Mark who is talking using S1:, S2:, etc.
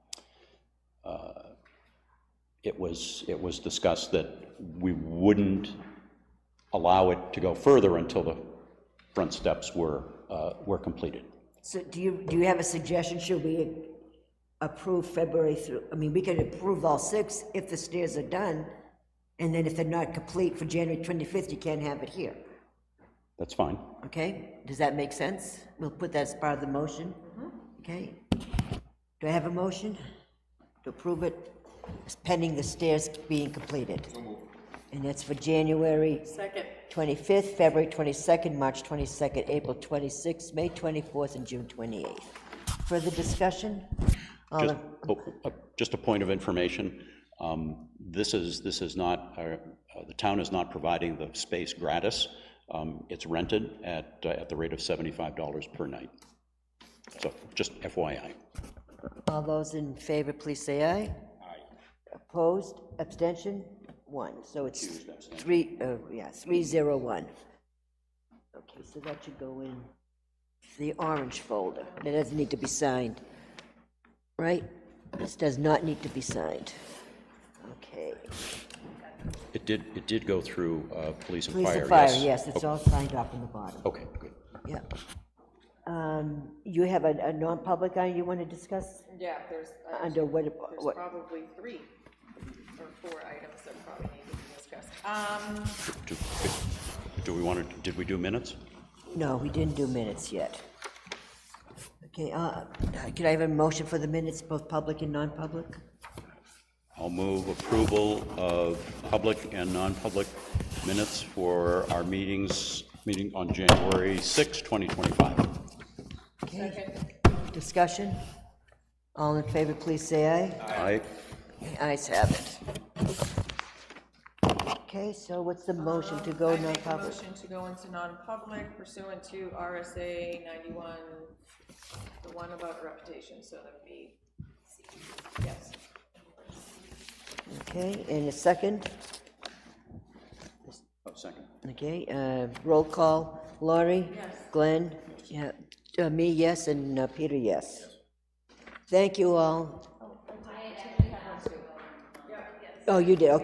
S1: it was, it was discussed that we wouldn't allow it to go further until the front steps were, uh, were completed.
S2: So do you, do you have a suggestion? Should we approve February through, I mean, we could approve all six if the stairs are done, and then if they're not complete for January 25th, you can't have it here,
S1: That's fine.
S2: okay? Does that make sense? We'll put that as part of the motion, okay? Do I have a motion to approve it pending the stairs being completed? And that's for January
S3: Second.
S2: 25th, February 22nd, March 22nd, April 26th, May 24th, and June 28th. Further discussion? All
S1: Just,
S2: in-
S1: oh, uh, just a point of information, um, this is, this is not, uh, uh, the town is not providing the space gratis. Um, It's rented at, uh, at the rate of $75 per night. So just FYI.
S2: All those in favor, please say aye. Opposed, abstention, one. So it's three, uh, yeah, three zero one. Okay, so that should go in the orange folder. It doesn't need to be signed, right? This does not need to be signed. Okay.
S1: It did, it did go through uh, police and
S2: Police
S1: fire, yes?
S2: and fire, yes, it's all signed up in the bottom.
S1: Okay, good.
S2: Yep. Um, You have a, a non-public item you want to discuss
S3: Yeah, there's, uh,
S2: under what,
S3: there's
S2: what,
S3: probably three or four items that probably need to be discussed. Um,
S1: Do do we want to, did we do minutes?
S2: no, we didn't do minutes yet. Okay, uh, can I have a motion for the minutes, both public and non-public?
S1: I'll move approval of public and non-public minutes for our meetings, meeting on January 6, 2025.
S2: Okay. Discussion? All in favor, please say aye.
S1: Aye.
S2: The ayes have it. Okay, so what's the motion to go
S3: I make a
S2: non-public?
S3: motion to go into non-public pursuant to RSA ninety-one, the one about reputation, so that would be, yes.
S2: Okay, and a second?
S1: Oh, second.
S2: Okay, uh, roll call, Laurie?
S3: Yes.
S2: Glenn? Yeah, uh, me, yes, and uh, Peter, yes. Thank you all. Oh, you did, okay.